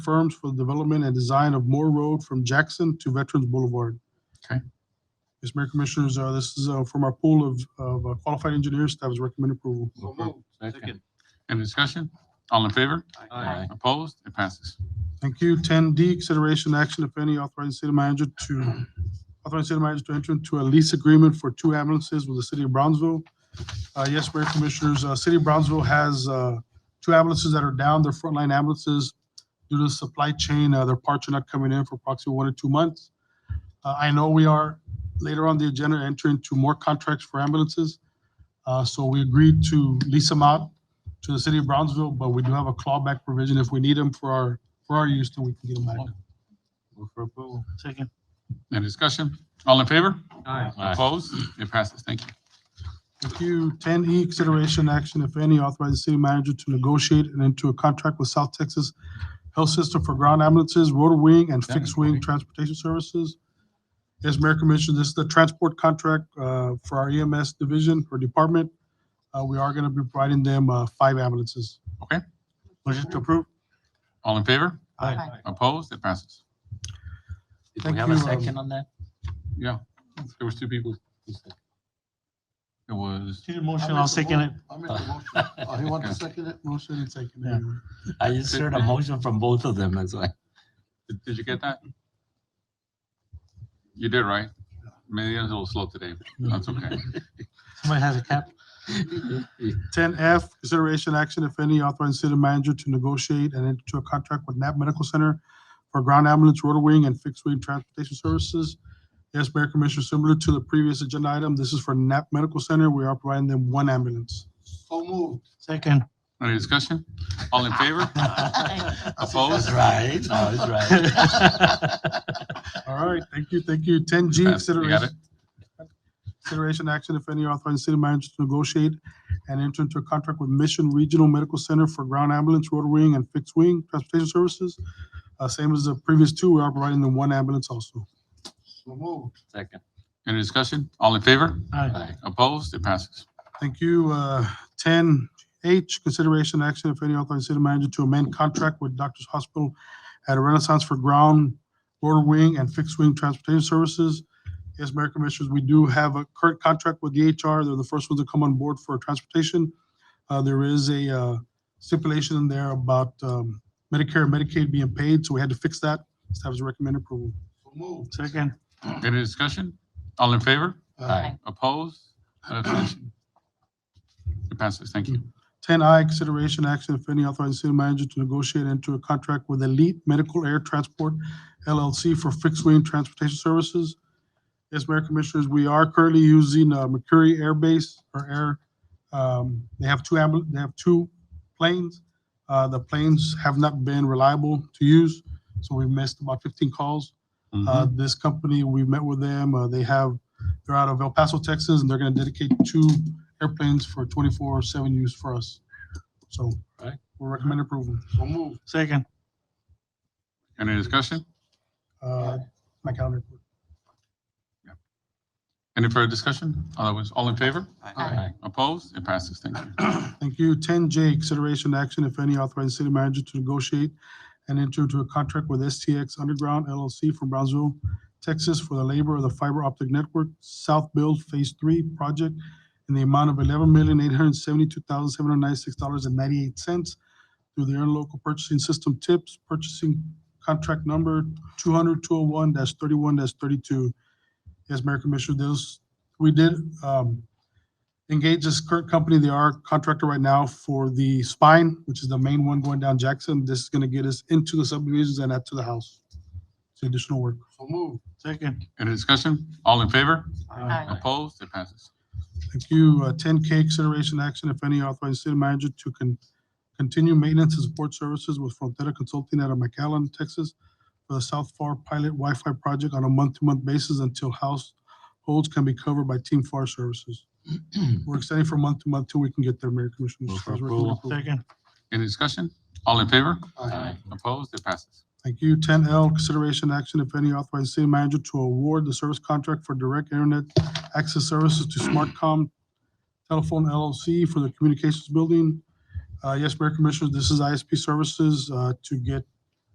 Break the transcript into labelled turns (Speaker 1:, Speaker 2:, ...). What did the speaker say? Speaker 1: firms for the development and design of Moore Road from Jackson to Veterans Boulevard.
Speaker 2: Okay.
Speaker 1: Yes, Mayor Commissioners, uh, this is uh, from our pool of- of uh, qualified engineers. Staff is recommending approval.
Speaker 2: So
Speaker 3: moved.
Speaker 2: Second.
Speaker 3: Second.
Speaker 2: Any discussion? All in favor?
Speaker 3: Aye.
Speaker 2: Opposed? It passes.
Speaker 1: Thank you. Ten D, consideration action, if any, authorizing city manager to, authorizing city manager to enter into a lease agreement for two ambulances with the city of Brownsville. Uh, yes, Mayor Commissioners, uh, City of Brownsville has, uh, two ambulances that are down, they're frontline ambulances. Due to the supply chain, uh, their parts are not coming in for approximately one or two months. Uh, I know we are later on the agenda entering into more contracts for ambulances. Uh, so we agreed to lease them out to the city of Brownsville, but we do have a clawback provision if we need them for our for our use till we can get them back.
Speaker 3: Move for approval. Second.
Speaker 2: Any discussion? All in favor?
Speaker 3: Aye.
Speaker 2: Opposed? It passes. Thank you.
Speaker 1: Thank you. Ten E, consideration action, if any, authorize the city manager to negotiate and enter a contract with South Texas Health System for ground ambulances, rotor wing, and fixed wing transportation services. Yes, Mayor Commissioner, this is the transport contract uh, for our EMS division or department. Uh, We are going to be providing them uh, five ambulances.
Speaker 3: Motion to approve.
Speaker 2: All in favor?
Speaker 3: Aye.
Speaker 2: Opposed? It passes.
Speaker 4: Did
Speaker 1: Thank
Speaker 4: we have a
Speaker 1: you, um,
Speaker 4: second on that?
Speaker 2: Yeah. There was two people. It was,
Speaker 3: Need a motion, I'll second it.
Speaker 5: I'll make the motion. Oh, he wants to second it?
Speaker 1: Motion and second.
Speaker 3: Yeah.
Speaker 4: I just heard a motion from both of them, that's why.
Speaker 2: did- did you get that? You did, right? Maybe I was a little slow today, but that's okay.
Speaker 3: Somebody has a cap.
Speaker 1: Ten F, consideration action, if any, authorizing city manager to negotiate and enter into a contract with NAP Medical Center for ground ambulance, rotor wing, and fixed wing transportation services. Yes, Mayor Commissioner, similar to the previous agenda item, this is for NAP Medical Center. We are providing them one ambulance.
Speaker 5: So moved.
Speaker 3: Second.
Speaker 2: Any discussion? All in favor? Opposed?
Speaker 4: That's right, no, that's right.
Speaker 1: All right, thank you, thank you. Ten G,
Speaker 2: You got
Speaker 1: consideration.
Speaker 2: it?
Speaker 1: Consideration action, if any, authorizing city manager to negotiate and enter into a contract with Mission Regional Medical Center for ground ambulance, rotor wing, and fixed wing transportation services. Uh, same as the previous two, we are providing them one ambulance also.
Speaker 5: So moved.
Speaker 4: Second.
Speaker 2: Any discussion? All in favor?
Speaker 3: Aye.
Speaker 4: Aye.
Speaker 2: Opposed? It passes.
Speaker 1: Thank you. Uh, Ten H, consideration action, if any, authorizing city manager to amend contract with Doctors Hospital at Renaissance for ground, rotor wing, and fixed wing transportation services. Yes, Mayor Commissioners, we do have a current contract with DHR. They're the first ones to come on board for transportation. Uh, There is a uh, stipulation in there about um, Medicare and Medicaid being paid, so we had to fix that. Staff is recommending approval.
Speaker 5: So moved.
Speaker 3: Second.
Speaker 2: Any discussion? All in favor?
Speaker 4: Aye.
Speaker 2: Opposed? An abstention? It passes. Thank you.
Speaker 1: Ten I, consideration action, if any, authorizing city manager to negotiate and enter a contract with Elite Medical Air Transport LLC for fixed wing transportation services. Yes, Mayor Commissioners, we are currently using uh, Mercury Air Base or Air. um, They have two ambul, they have two planes. Uh, The planes have not been reliable to use, so we've missed about fifteen calls. Uh, This company, we met with them, uh, they have, they're out of El Paso, Texas, and they're gonna dedicate two airplanes for twenty-four seven use for us. So
Speaker 4: Right.
Speaker 1: we recommend approval.
Speaker 5: So moved.
Speaker 3: Second.
Speaker 2: Any discussion?
Speaker 1: Uh, My calendar.
Speaker 2: Any further discussion? Otherwise, all in favor?
Speaker 4: Aye.
Speaker 2: Opposed? It passes. Thank you.
Speaker 1: Thank you. Ten J, consideration action, if any, authorizing city manager to negotiate and enter into a contract with STX Underground LLC from Brownsville, Texas for the labor of the fiber optic network South Build Phase Three project in the amount of eleven million, eight hundred seventy-two thousand, seven hundred ninety-six dollars and ninety-eight cents through their local purchasing system tips, purchasing contract number two hundred, two oh one dash thirty-one dash thirty-two. Yes, Mayor Commissioner, those, we did, um, engage this current company. They are contractor right now for the spine, which is the main one going down Jackson. This is gonna get us into the subdivisions and out to the house. It's additional work.
Speaker 5: So moved.
Speaker 3: Second.
Speaker 2: Any discussion? All in favor?
Speaker 3: Aye.
Speaker 2: Opposed? It passes.
Speaker 1: Thank you. Uh, Ten K, consideration action, if any, authorizing city manager to con- continue maintenance and support services with Frontera Consulting out of McAllen, Texas for the South Far Pilot Wi-Fi project on a month-to-month basis until households can be covered by Team FAR services. We're extending from month to month till we can get there, Mayor Commissioner.
Speaker 4: Move for approval.
Speaker 3: Second.
Speaker 2: Any discussion? All in favor?
Speaker 4: Aye.
Speaker 2: Opposed? It passes.
Speaker 1: Thank you. Ten L, consideration action, if any, authorizing city manager to award the service contract for direct internet access services to Smartcom Telephone LLC for the communications building. Uh, yes, Mayor Commissioners, this is ISP services, uh, to get